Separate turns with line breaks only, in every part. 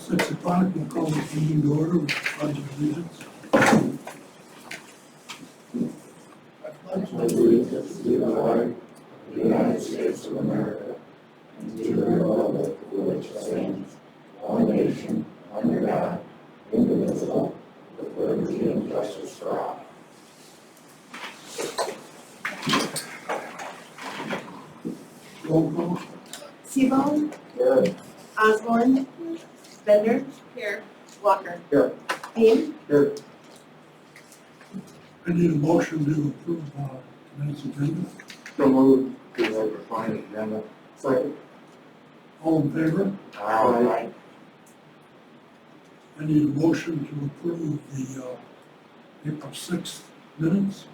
six o'clock, we'll call this meeting to order with the pledge of allegiance. Roll call.
Sebon,
Here.
Osborne, Bender. Here. Walker.
Here.
Payne.
Here.
I need a motion to approve uh, tonight's agenda.
So moved. Because I find it, then, second.
All in favor?
Aye.
I need a motion to approve the uh, April sixth minutes.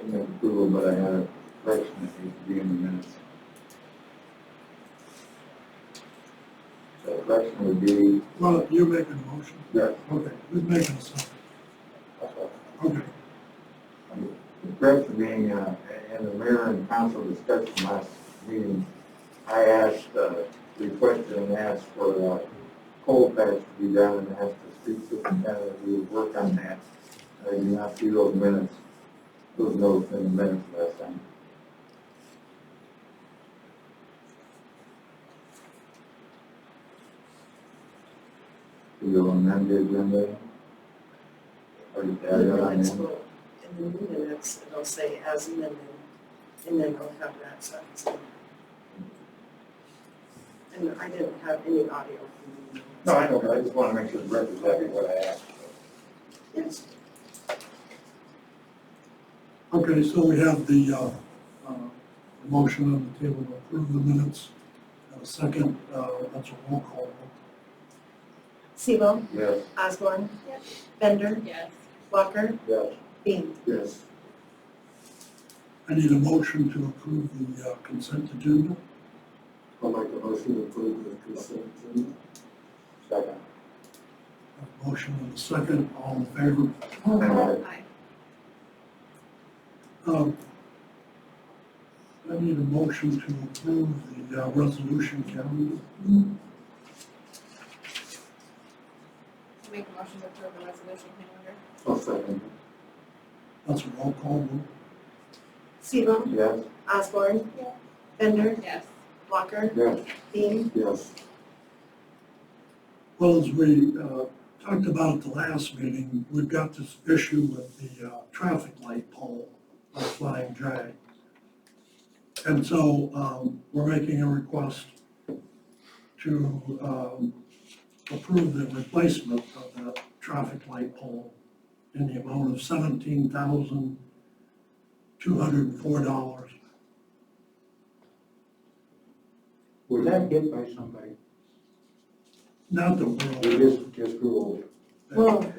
And then approval, but I had a correction that needs to be in the minutes. So correction would be,
Well, you're making a motion.
yeah,
Okay, who's making a second? Okay,
um, the correction being, uh, in the mayor and council discussion last meeting, I asked, uh, requested and asked for, uh, coal patch to be done and asked the street superintendent to work on that. I did not see those minutes, those notes in the minutes last time. Do you amend the agenda? Or you
And
add it
the
on
minutes
in?
will, in the minutes, it'll say as amended, and then I'll have that sentence. in. And I didn't have any audio from the minutes.
No, I know, but I just want to make sure the record's exactly what I asked.
Yes,
okay, so we have the uh, uh, motion on the table to approve the minutes. And a second, uh, that's a roll call.
Sebon,
Yes,
Osborne. Bender.
Yes.
Walker.
yes,
Payne.
yes.
I need a motion to approve the uh, consent agenda.
I'll make a motion to approve the consent agenda. Second.
A Motion and a second, all in favor?
Aye.
Um, I need a motion to approve the uh, resolution calendar.
Make a motion to approve the resolution calendar?
I'll second.
That's a roll call vote.
Sebon,
Yes,
Osborne. Bender.
Yes.
Walker.
yes,
Payne.
yes.
Well, as we uh, talked about at the last meeting, we've got this issue with the uh, traffic light pole by Flying J. And so um, we're making a request to um, approve the replacement of that traffic light pole in the amount of seventeen thousand two hundred and four dollars.
Was that hit by somebody?
Not that
It
we're,
is, just Google. Well,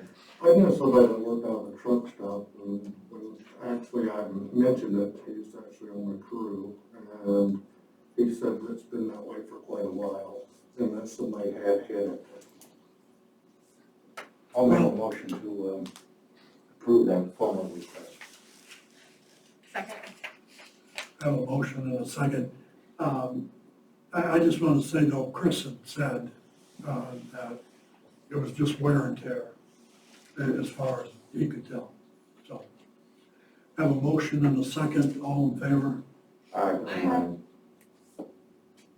I know somebody that worked out of a truck stop, and was, actually, I mentioned it, he's actually on the crew, and he said it's been that way for quite a while, and that somebody had hit it. I'll
make a
motion to, um, approve that formal request.
Second?
have a motion and a second. Um, I, I just want to say though, Chris had said, uh, that it was just wear and tear a- as far as he could tell, so. Have a motion and a second, all in favor,
Aye.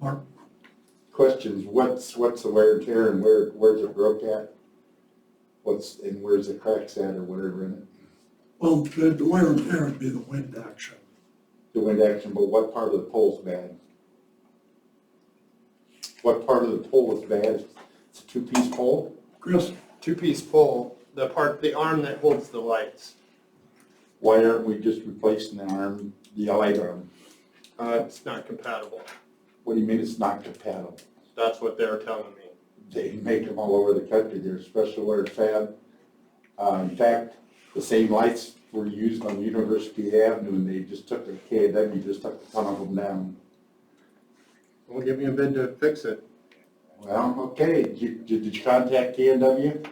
Mark?
questions, what's, what's the wear and tear and where, where's it broke at? What's, and where's the cracks at or whatever in it,
Well, the the wear and tear would be the wind action.
the wind action, but what part of the pole's bad? What part of the pole is bad? It's a two-piece pole?
Chris,
two-piece pole, the part, the arm that holds the lights.
Why aren't we just replacing the arm, the light arm?
Uh, it's not compatible.
What do you mean it's not compatible?
That's what they're telling me.
They make them all over the country, they're special wear fab. Uh, in fact, the same lights were used on University Avenue and they just took the K and W, just took a ton of them down.
Well, give me a bid to fix it.
Well, okay, did you, did you contact K and W?